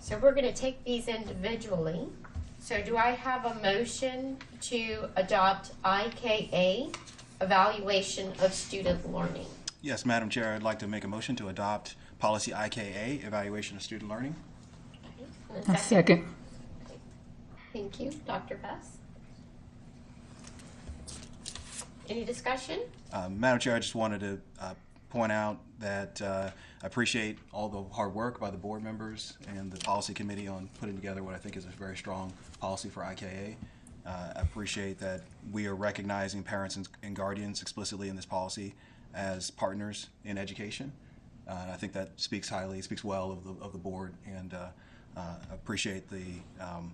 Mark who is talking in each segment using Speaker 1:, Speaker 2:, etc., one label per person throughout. Speaker 1: So we're going to take these individually. So do I have a motion to adopt IKA, Evaluation of Student Learning?
Speaker 2: Yes, Madam Chair, I'd like to make a motion to adopt policy IKA, evaluation of student learning.
Speaker 1: And a
Speaker 3: A second.
Speaker 1: Thank you, Dr. Bess. Any discussion?
Speaker 2: Um, Madam Chair, I just wanted to uh, point out that uh, I appreciate all the hard work by the board members and the policy committee on putting together what I think is a very strong policy for IKA. Uh, I appreciate that we are recognizing parents and, and guardians explicitly in this policy as partners in education. Uh, and I think that speaks highly, speaks well of the, of the board, and uh, uh, appreciate the um,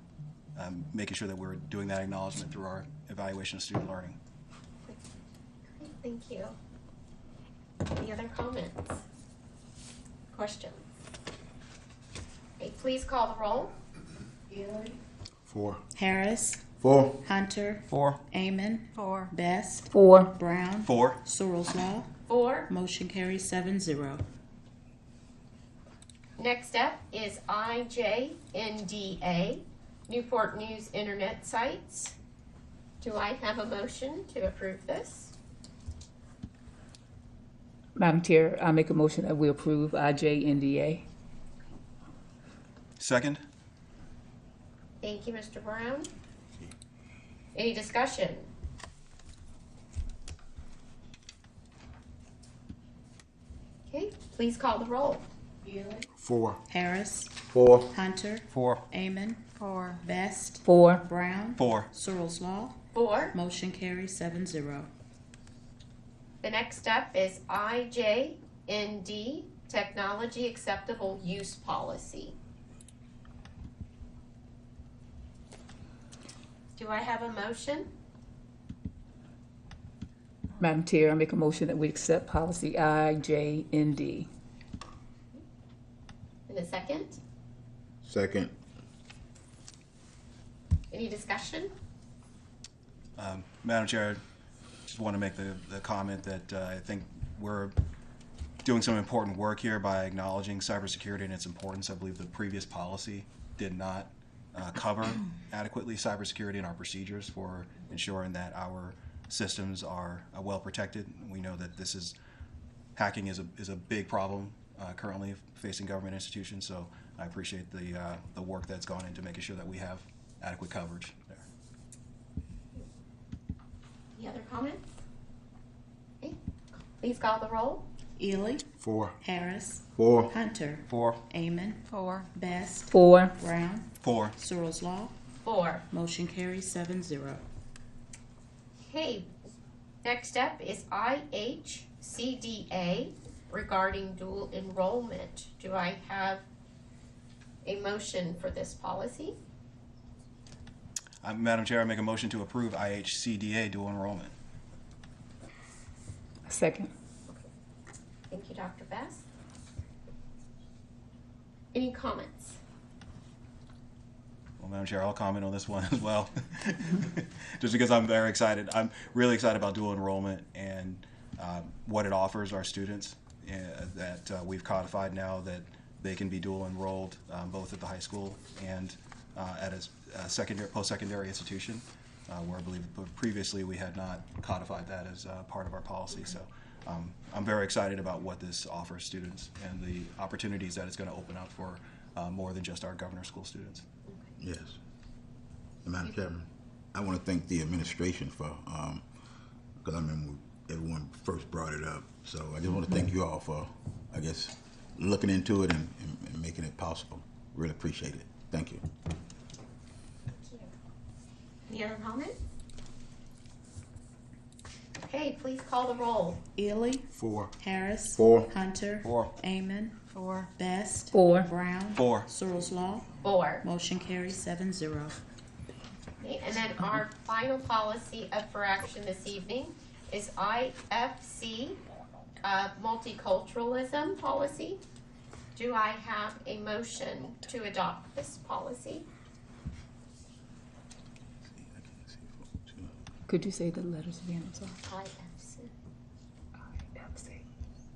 Speaker 2: um, making sure that we're doing that acknowledgement through our evaluation of student learning.
Speaker 1: Great, Thank you. Any other comments? Questions? Okay, please call the roll.
Speaker 4: Gary.
Speaker 5: Four.
Speaker 4: Harris.
Speaker 5: Four.
Speaker 4: Hunter.
Speaker 2: Four.
Speaker 4: Amon. Four. Best.
Speaker 3: Four.
Speaker 4: Brown.
Speaker 2: Four.
Speaker 4: Searles Law.
Speaker 1: Four.
Speaker 4: Motion carries seven zero.
Speaker 1: Next up is IJNDA, Newport News Internet Sites. Do I have a motion to approve this?
Speaker 3: Madam Chair, I make a motion that we approve IJNDA.
Speaker 2: Second?
Speaker 1: Thank you, Mr. Brown. Any discussion? Okay, please call the roll.
Speaker 5: Four.
Speaker 4: Harris.
Speaker 5: Four.
Speaker 4: Hunter.
Speaker 2: Four.
Speaker 4: Amon. Four. Best.
Speaker 3: Four.
Speaker 4: Brown.
Speaker 2: Four.
Speaker 4: Searles Law.
Speaker 1: Four.
Speaker 4: Motion carries seven zero.
Speaker 1: The next up is IJND, Technology Acceptable Use Policy. Do I have a motion?
Speaker 3: Madam Chair, I make a motion that we accept policy IJND.
Speaker 1: In a second?
Speaker 5: Second.
Speaker 1: Any discussion?
Speaker 2: Um, Madam Chair, I just want to make the, the comment that uh, I think we're doing some important work here by acknowledging cybersecurity and its importance. I believe the previous policy did not uh, cover adequately cybersecurity and our procedures for ensuring that our systems are uh, well protected. We know that this is hacking is a, is a big problem uh, currently facing government institutions. So I appreciate the uh, the work that's gone into making sure that we have adequate coverage there.
Speaker 1: Any other comments? Okay, Please call the roll.
Speaker 4: Ely.
Speaker 5: Four.
Speaker 4: Harris.
Speaker 5: Four.
Speaker 4: Hunter.
Speaker 2: Four.
Speaker 4: Amon. Four. Best.
Speaker 3: Four.
Speaker 4: Brown.
Speaker 2: Four.
Speaker 4: Searles Law.
Speaker 1: Four.
Speaker 4: Motion carries seven zero.
Speaker 1: Okay, next up is IHCDA regarding dual enrollment. Do I have a motion for this policy?
Speaker 2: Uh, Madam Chair, I make a motion to approve IHCDA dual enrollment.
Speaker 3: Second.
Speaker 1: Thank you, Dr. Best. Any comments?
Speaker 2: Well, Madam Chair, I'll comment on this one as well, just because I'm very excited. I'm really excited about dual enrollment and um, what it offers our students uh, that uh, we've codified now that they can be dual enrolled um, both at the high school and uh, at a, s- a secondary, post-secondary institution, uh, where I believe previously we had not codified that as uh, part of our policy. So um, I'm very excited about what this offers students and the opportunities that it's going to open up for uh, more than just our governor school students.
Speaker 5: Yes. Madam Chairman, I want to thank the administration for, um, because I remember everyone first brought it up. So I just want to thank you all for, I guess, looking into it and, and, and making it possible. Really appreciate it. Thank you.
Speaker 1: Any other comments? Okay, please call the roll.
Speaker 4: Ely.
Speaker 5: Four.
Speaker 4: Harris.
Speaker 5: Four.
Speaker 4: Hunter.
Speaker 2: Four.
Speaker 4: Amon. Four. Best.
Speaker 3: Four.
Speaker 4: Brown.
Speaker 2: Four.
Speaker 4: Searles Law.
Speaker 1: Four.
Speaker 4: Motion carries seven zero.
Speaker 1: Okay, And then our final policy up for action this evening is IFC, uh, multiculturalism policy. Do I have a motion to adopt this policy?
Speaker 3: Could you say the letters again? I'm sorry.
Speaker 1: IFC.